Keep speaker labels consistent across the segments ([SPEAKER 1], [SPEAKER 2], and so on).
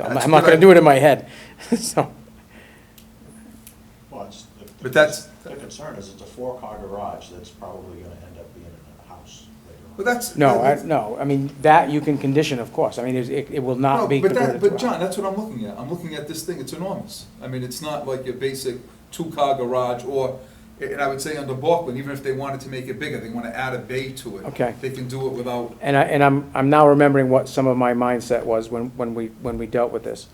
[SPEAKER 1] I'm
[SPEAKER 2] That's
[SPEAKER 1] I'm not
[SPEAKER 2] what I-
[SPEAKER 1] gonna do it in my head, so,
[SPEAKER 3] Well, it's, the- the.
[SPEAKER 2] But that's-
[SPEAKER 3] The concern is it's a four-car garage that's probably gonna end up being a house later on.
[SPEAKER 2] But that's.
[SPEAKER 1] no, I,
[SPEAKER 2] that's-
[SPEAKER 1] no, I mean, that you can condition, of course, I mean, it's- it, it will
[SPEAKER 2] No,
[SPEAKER 1] not be
[SPEAKER 2] but that-
[SPEAKER 1] converted to a.
[SPEAKER 2] But John, that's what I'm looking at, I'm looking at this thing, it's enormous. I mean, it's not like your basic two-car garage, or, and I would say under Balkland, even if they wanted to make it bigger, they wanna add a bay to it.
[SPEAKER 1] Okay.
[SPEAKER 2] They can do it without,
[SPEAKER 1] And I, and I'm, I'm now remembering what some of my mindset was when, when we, when we dealt with this.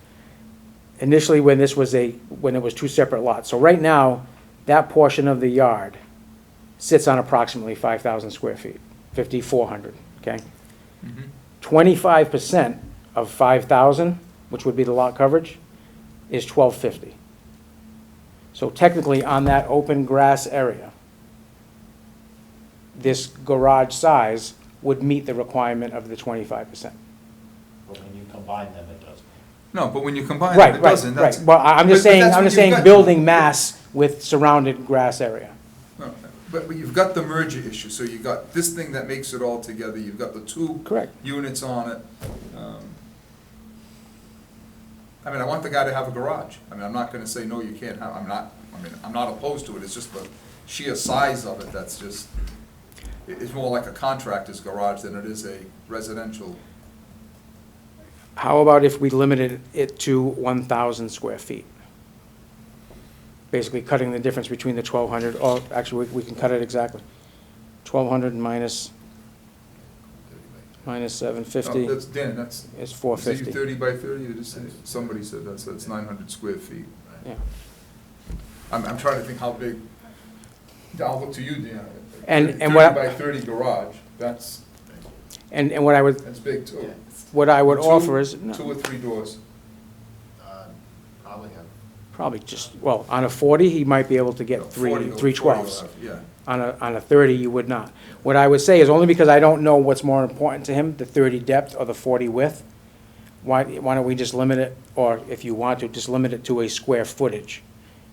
[SPEAKER 1] Initially, when this was a, when it was two separate lots, so right now, that portion of the yard sits on approximately five thousand square feet, fifty-four hundred, okay? Twenty-five percent of five thousand, which would be the lot coverage, is twelve fifty. So technically, on that open grass area, this garage size would meet the requirement of the twenty-five percent.
[SPEAKER 3] But when you combine them, it doesn't.
[SPEAKER 2] no, but when you combine
[SPEAKER 1] Right,
[SPEAKER 2] it, it
[SPEAKER 1] right,
[SPEAKER 2] doesn't,
[SPEAKER 1] right.
[SPEAKER 2] that's.
[SPEAKER 1] Well, I- I'm just
[SPEAKER 2] but- but
[SPEAKER 1] saying,
[SPEAKER 2] that's
[SPEAKER 1] I'm
[SPEAKER 2] what
[SPEAKER 1] just
[SPEAKER 2] you've
[SPEAKER 1] saying,
[SPEAKER 2] got.
[SPEAKER 1] building mass with surrounded grass area.
[SPEAKER 2] No, But, but you've got the merger issue, so you've got this thing that makes it all together, you've got the two.
[SPEAKER 1] Correct.
[SPEAKER 2] Units on it. Um, I mean, I want the guy to have a garage. I mean, I'm not gonna say, no, you can't have, I'm not, I mean, I'm not opposed to it, it's just the sheer size of it that's just, it- it's more like a contractor's garage than it is a residential.
[SPEAKER 1] How about if we limited it to one thousand square feet? Basically cutting the difference between the twelve hundred, or actually, we we can cut it exactly. Twelve hundred minus, minus seven fifty
[SPEAKER 2] No, Oh, That's, Dan, that's.
[SPEAKER 1] is four
[SPEAKER 2] is it you
[SPEAKER 1] fifty.
[SPEAKER 2] Thirty by thirty, it is, somebody said that's, that's nine hundred square feet.
[SPEAKER 1] Yeah.
[SPEAKER 2] I'm, I'm trying to think how big, I'll look to you, Dan.
[SPEAKER 1] And- and what-
[SPEAKER 2] Thirty by thirty garage, that's,
[SPEAKER 1] And, and what I would,
[SPEAKER 2] that's big too.
[SPEAKER 1] what I would
[SPEAKER 2] Two-
[SPEAKER 1] offer is, no,
[SPEAKER 2] Two or three doors.
[SPEAKER 3] Probably have.
[SPEAKER 1] probably just, well, on a forty, he might be able to
[SPEAKER 2] No,
[SPEAKER 1] get
[SPEAKER 2] 40
[SPEAKER 1] three,
[SPEAKER 2] or
[SPEAKER 1] three
[SPEAKER 2] 40
[SPEAKER 1] twelves.
[SPEAKER 2] or- Yeah.
[SPEAKER 1] On a, on a thirty, you would not. What I would say is only because I don't know what's more important to him, the thirty depth or the forty width. Why, why don't we just limit it, or if you want to, just limit it to a square footage?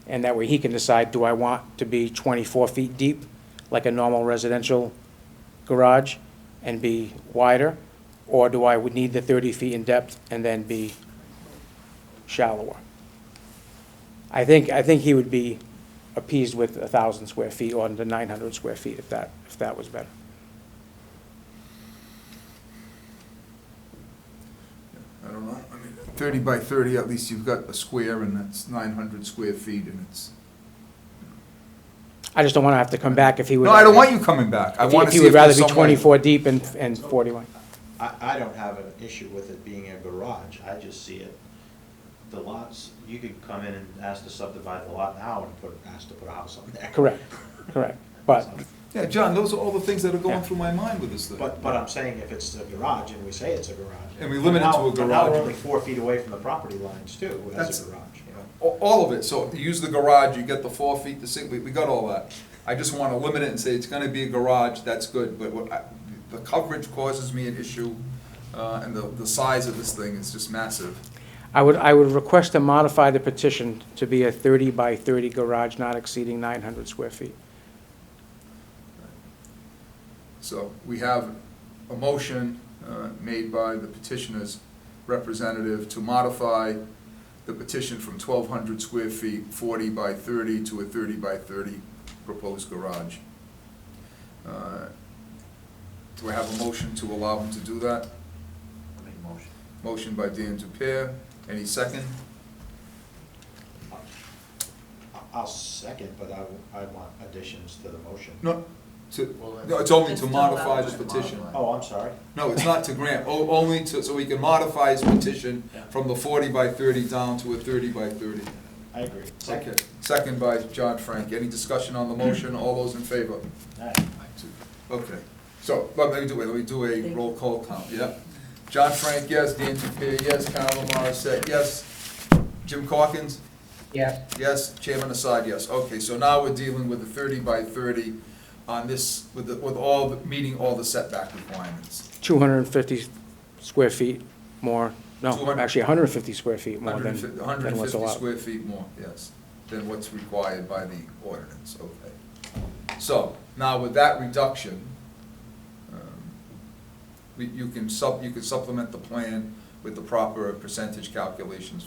[SPEAKER 1] And that way he can decide, do I want to be twenty-four feet deep, like a normal residential garage, and be wider? Or do I would need the thirty feet in depth and then be shallower? I think, I think he would be appeased with a thousand square feet or the nine hundred square feet if that, if that was better.
[SPEAKER 2] I don't know, I mean, thirty by thirty, at least you've got a square and that's nine hundred square feet and it's.
[SPEAKER 1] I just don't wanna have to come back if he would.
[SPEAKER 2] No, I don't want you coming back, I
[SPEAKER 1] if he-
[SPEAKER 2] wanna
[SPEAKER 1] if
[SPEAKER 2] see
[SPEAKER 1] he
[SPEAKER 2] if
[SPEAKER 1] would rather
[SPEAKER 2] there's
[SPEAKER 1] be
[SPEAKER 2] some way.
[SPEAKER 1] twenty-four deep and, and forty-one.
[SPEAKER 3] I, I don't have an issue with it being a garage, I just see it, the lots, you could come in and ask to subdivide the lot now and put, ask to put a house on there.
[SPEAKER 1] Correct, correct. But,
[SPEAKER 2] Yeah, John, those are all the things that are going
[SPEAKER 1] Yeah.
[SPEAKER 2] through my mind with this thing.
[SPEAKER 3] But, but I'm saying if it's a garage and we say it's a garage.
[SPEAKER 2] And we limit it
[SPEAKER 3] now-
[SPEAKER 2] to a
[SPEAKER 3] but Now we're
[SPEAKER 2] garage.
[SPEAKER 3] only four feet away from the property lines too,
[SPEAKER 2] That's-
[SPEAKER 3] as a garage. you know.
[SPEAKER 2] A- All of it, so if you use the garage, you get the four feet, the six, we, we got all that. I just wanna limit it and say it's gonna be a garage, that's good, but what, I- the coverage causes me an issue, uh, and the, the size of this thing is just massive.
[SPEAKER 1] I would, I would request to modify the petition to be a thirty by thirty garage not exceeding nine hundred square feet.
[SPEAKER 2] So we have a motion uh, made by the petitioner's representative to modify the petition from 1,200 square feet, 40 by 30, to a 30 by 30 proposed garage. Uh, Do I have a motion to allow him to do that?
[SPEAKER 3] I make a motion.
[SPEAKER 2] Motion by Dan Dupere. Any second?
[SPEAKER 3] I- I'll second, but I, w- I want additions to the motion.
[SPEAKER 2] No, to,
[SPEAKER 4] Well,
[SPEAKER 2] no, it's only
[SPEAKER 4] it's
[SPEAKER 2] to
[SPEAKER 4] to
[SPEAKER 2] modify
[SPEAKER 4] allow
[SPEAKER 2] the
[SPEAKER 4] him to
[SPEAKER 2] petition.
[SPEAKER 4] modify.
[SPEAKER 3] Oh, I'm sorry.
[SPEAKER 2] No, it's not to grant, o- only to, so he can modify his petition
[SPEAKER 3] Yeah.
[SPEAKER 2] from the forty by thirty down to a thirty by thirty.
[SPEAKER 3] I agree.
[SPEAKER 2] Okay, second by John Frank, any discussion on the motion, all those in favor?
[SPEAKER 3] Aye.
[SPEAKER 2] Okay, so, but let me do, it. let me do a roll call count, yeah? John Frank, yes, Dan Dupere, yes, Carol Morissette, yes, Jim Corkins?
[SPEAKER 1] Yeah.
[SPEAKER 2] Yes, Chairman Assad, yes. Okay, so now we're dealing with the thirty by thirty on this, with, the- with all, the- meeting all the setback requirements.
[SPEAKER 1] Two hundred and fifty square feet more, no,
[SPEAKER 2] 200
[SPEAKER 1] actually hundred and fifty square feet more than,
[SPEAKER 2] 150
[SPEAKER 1] than what's
[SPEAKER 2] 150
[SPEAKER 1] allowed.
[SPEAKER 2] square feet more, yes, than what's required by the ordinance, okay. So, now with that reduction, um, we- you can sup, you can supplement the plan with the proper percentage calculations